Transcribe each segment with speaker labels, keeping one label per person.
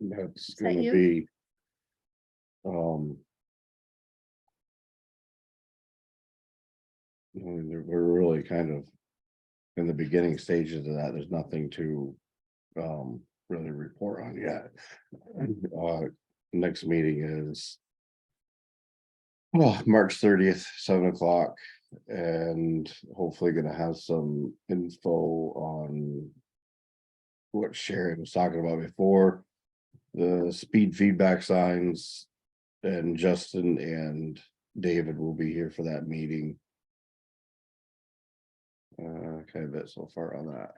Speaker 1: That's
Speaker 2: Is that
Speaker 1: gonna
Speaker 2: you?
Speaker 1: be. Um. I mean, We're we're really kind of. In the beginning stages of that, there's nothing to. Um, really report on yet. Uh, next meeting is. Well, March thirtieth, seven o'clock, and hopefully gonna have some info on. What Sharon was talking about before the speed feedback signs. And Justin and David will be here for that meeting. Uh, kind of bit so far on that.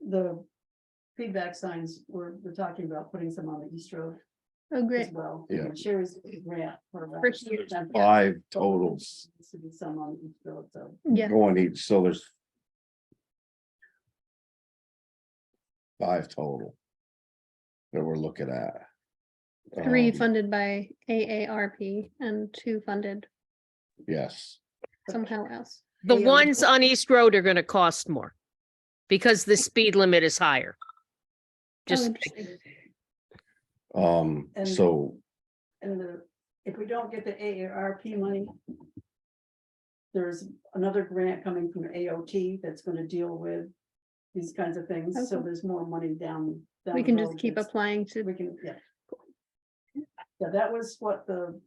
Speaker 3: the feedback signs, we're, we're talking about putting some on the East Road
Speaker 2: Oh,
Speaker 3: as
Speaker 2: great.
Speaker 3: well.
Speaker 1: Yeah.
Speaker 3: Sherry's grant. for that.
Speaker 2: For sure.
Speaker 3: There's
Speaker 1: Five totals
Speaker 3: needs to be Some on East Road, so.
Speaker 2: Yeah,
Speaker 1: going each, so there's. Five total. That we're looking at.
Speaker 2: three
Speaker 1: Um,
Speaker 2: funded by AARP and two funded
Speaker 1: Yes,
Speaker 2: somehow else.
Speaker 4: The
Speaker 3: Yeah.
Speaker 4: ones on East Road are gonna cost more because the speed limit is higher.
Speaker 2: Oh,
Speaker 4: Just,
Speaker 2: interesting.
Speaker 1: um,
Speaker 3: And-
Speaker 1: so
Speaker 3: And the, if we don't get the AARP money, there's another grant coming from AOT that's gonna deal with these kinds of things, so
Speaker 2: Okay.
Speaker 3: there's more money down. down
Speaker 2: We
Speaker 3: the
Speaker 2: can just
Speaker 3: road
Speaker 2: keep
Speaker 3: that's-
Speaker 2: applying
Speaker 3: We
Speaker 2: to,
Speaker 3: can, yeah. So that was what the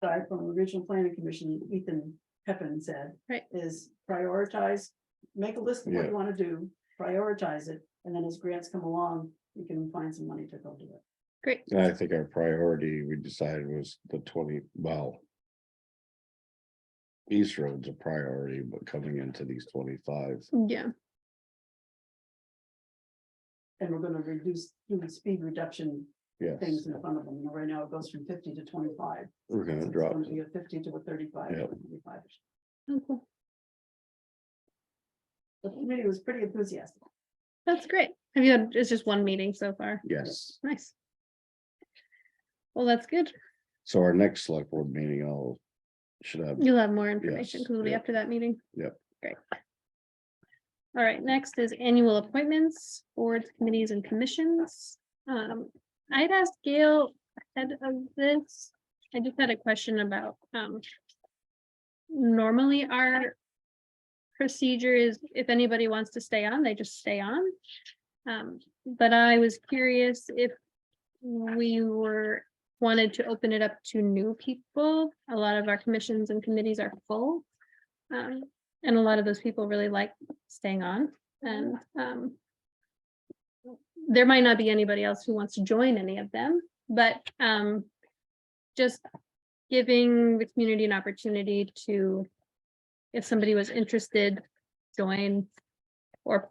Speaker 3: guy from the Regional Planning Commission, Ethan Peppin said.
Speaker 2: Right.
Speaker 3: Is prioritize, make a list of what
Speaker 1: Yeah.
Speaker 3: you wanna do, prioritize it, and then as grants come along, you can find some money to go do it.
Speaker 2: great.
Speaker 1: and I think our priority we decided was the twenty, well. East Road's a priority, but coming into these twenty-five,
Speaker 2: Yeah,
Speaker 3: And we're gonna reduce, do the speed reduction
Speaker 1: yes,
Speaker 3: things in front of them, right now it goes from fifty to twenty-five.
Speaker 1: we're
Speaker 3: So
Speaker 1: gonna
Speaker 3: it's
Speaker 1: drop,
Speaker 3: gonna Be a fifty to a thirty-five.
Speaker 1: Yep.
Speaker 3: 25.
Speaker 2: Oh, cool.
Speaker 3: The committee was pretty enthusiastic.
Speaker 2: that's great. Have you had, it's just one meeting so far.
Speaker 1: yes.
Speaker 2: Nice. Well, that's good.
Speaker 1: So our next select board meeting, I'll, should have,
Speaker 2: You'll have more information
Speaker 1: Yes,
Speaker 2: because it'll be
Speaker 1: yep.
Speaker 2: after that meeting.
Speaker 1: Yep.
Speaker 2: Great. All right, next is annual appointments, boards, committees and commissions. Um, I'd asked Gail ahead of this. I just had a question about, um. Normally our procedure is if anybody wants to stay on, they just stay on. Um, but I was curious if we were wanted to open it up to new people. A lot of our commissions and committees are full. Um, and a lot of those people really like staying on and, um. There might not be anybody else who wants to join any of them, but, um, just giving the community an opportunity to, if somebody was interested, join or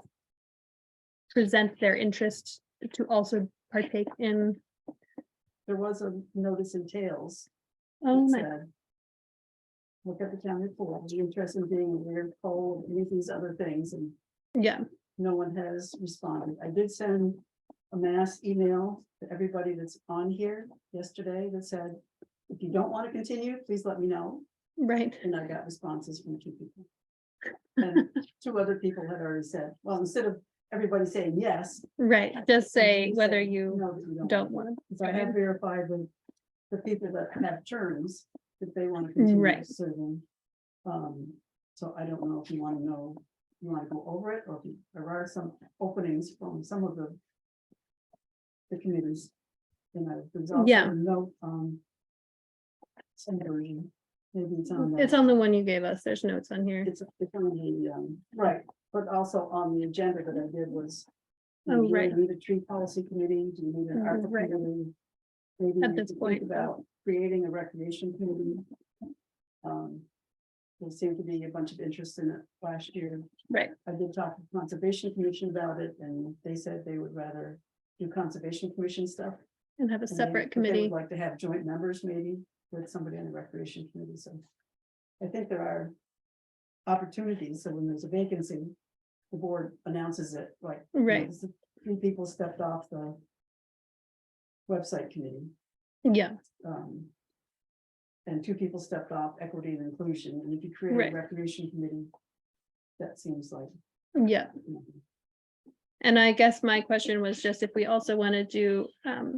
Speaker 2: present their interest to also partake in,
Speaker 3: There was a notice in Tails
Speaker 2: oh,
Speaker 3: It
Speaker 2: my
Speaker 3: said, Look at the town report, are you interested in being aware of coal, any of these other things, and
Speaker 2: Yeah,
Speaker 3: no one has responded. I did send a mass email to everybody that's on here yesterday that said, if you don't want to continue, please let me know,
Speaker 2: right.
Speaker 3: and I got responses from two people. And two other people had already said, well, instead of everybody saying yes.
Speaker 2: Right. Just say
Speaker 3: you
Speaker 2: whether
Speaker 3: said,
Speaker 2: you
Speaker 3: "No, you
Speaker 2: don't want
Speaker 3: So I have
Speaker 2: Right.
Speaker 3: verified with the people that have terms, that they want to continue
Speaker 2: Right.
Speaker 3: serving. Um, so I don't know if you want to know, you want to go over it, or if you- there are some openings from some of the the committees. And I, there's also
Speaker 2: Yeah.
Speaker 3: a note, um, some version, maybe it's on.
Speaker 2: to.
Speaker 3: the-
Speaker 2: It's on the one you gave us. There's notes on here.
Speaker 3: It's it's on the, um, right, but also on the agenda that I did was. you know,
Speaker 2: Oh,
Speaker 3: do you
Speaker 2: right.
Speaker 3: Need a tree policy committee, do you need an
Speaker 2: Mhm,
Speaker 3: ARPA
Speaker 2: right.
Speaker 3: committee? Maybe
Speaker 2: At
Speaker 3: you
Speaker 2: this
Speaker 3: could think
Speaker 2: point.
Speaker 3: About creating a recreation committee. Um, there seemed to be a bunch of interest in it last year.
Speaker 2: Right.
Speaker 3: I did talk to Conservation Commission about it, and they said they would rather do Conservation Commission stuff.
Speaker 2: And have a
Speaker 3: and they-
Speaker 2: separate
Speaker 3: but they would
Speaker 2: committee.
Speaker 3: Like to have joint members maybe with somebody on the recreation committee, so. I think there are opportunities, so when there's a vacancy, the board announces it, like. you know,
Speaker 2: Right.
Speaker 3: s- Three people stepped off the website committee,
Speaker 2: Yeah,
Speaker 3: um. And two people stepped off equity and inclusion, and if you create
Speaker 2: Right.
Speaker 3: a recreation committee, that seems like.
Speaker 2: yeah.
Speaker 3: you know,
Speaker 2: And I guess my question was just if we also want to do um